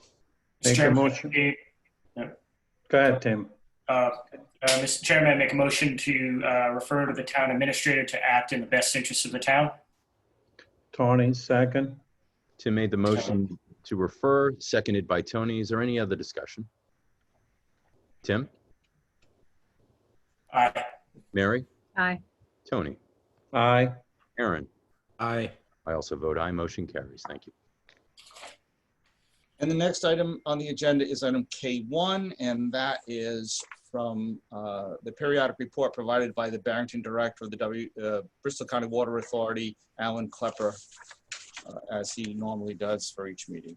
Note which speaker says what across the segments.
Speaker 1: Mr.
Speaker 2: Make a
Speaker 1: Chairman,
Speaker 2: motion.
Speaker 1: eh,
Speaker 2: Go ahead, Tim.
Speaker 1: uh, uh, Mr. Chairman, I make a motion to uh, refer to the town administrator to act in the best interest of the town.
Speaker 2: Tony, second.
Speaker 3: Tim made the motion to refer, seconded by Tony. Is there any other discussion? Tim,
Speaker 1: Aye.
Speaker 3: Mary,
Speaker 4: Aye.
Speaker 3: Tony,
Speaker 2: Aye.
Speaker 3: Aaron.
Speaker 5: Aye.
Speaker 3: I also vote aye. Motion carries. Thank you.
Speaker 6: And the next item on the agenda is item K1, and that is from uh, the periodic report provided by the Barrington Director of the W, uh, Bristol County Water Authority, Alan Klepper, uh, as he normally does for each meeting.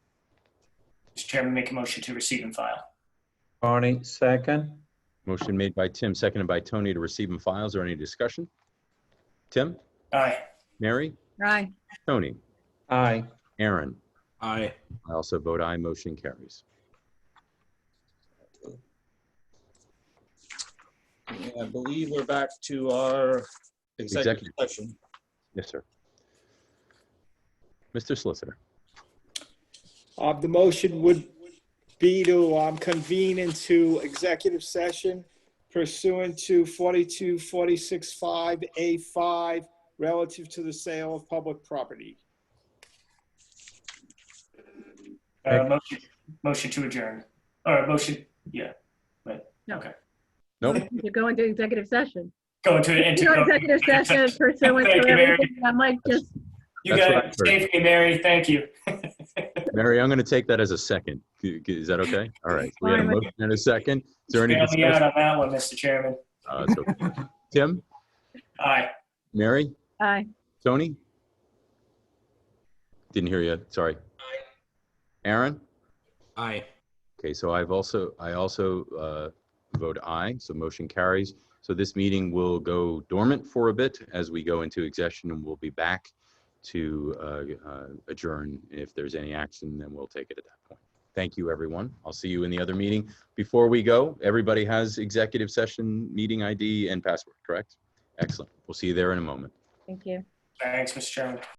Speaker 1: Mr. Chairman, make a motion to receive and file.
Speaker 2: Tony, second.
Speaker 3: Motion made by Tim, seconded by Tony to receive and file. Is there any discussion? Tim,
Speaker 1: Aye.
Speaker 3: Mary,
Speaker 4: Aye.
Speaker 3: Tony,
Speaker 2: Aye.
Speaker 3: Aaron.
Speaker 5: Aye.
Speaker 3: I also vote aye. Motion carries.
Speaker 6: And I believe we're back to our executive
Speaker 3: Executive.
Speaker 6: session.
Speaker 3: Yes, sir. Mr. Solicitor,
Speaker 7: Uh, The motion would be to um, convene into executive session pursuant to 42465A5 relative to the sale of public property.
Speaker 1: Uh, Motion motion to adjourn. Or motion, yeah.
Speaker 3: nope.
Speaker 4: You're going to executive session.
Speaker 1: Go into it.
Speaker 4: You know, executive session pursuant
Speaker 1: Thank
Speaker 4: to
Speaker 1: you, Mary.
Speaker 4: everything. I'm like, just,
Speaker 1: You
Speaker 3: That's
Speaker 1: got it.
Speaker 3: what I heard.
Speaker 1: Safely, Mary. Thank you.
Speaker 3: Mary, I'm going to take that as a second. Is that okay? All right. We had a
Speaker 4: Fine with
Speaker 3: motion and a second. Is there any
Speaker 1: Bail me out
Speaker 3: discussion?
Speaker 1: on that one, Mr. Chairman.
Speaker 3: Uh, it's okay. Tim,
Speaker 1: Aye.
Speaker 3: Mary,
Speaker 4: aye.
Speaker 3: Tony? Didn't hear you, sorry. Aaron?
Speaker 5: Aye.
Speaker 3: Okay, so I've also, I also uh, vote aye, so motion carries. So this meeting will go dormant for a bit as we go into execution and we'll be back to uh, uh, adjourn. If there's any action, then we'll take it at that point. Thank you, everyone. I'll see you in the other meeting. Before we go, everybody has executive session, meeting ID and password, correct? Excellent. We'll see you there in a moment.
Speaker 4: Thank you.
Speaker 1: Thanks, Mr. Chairman.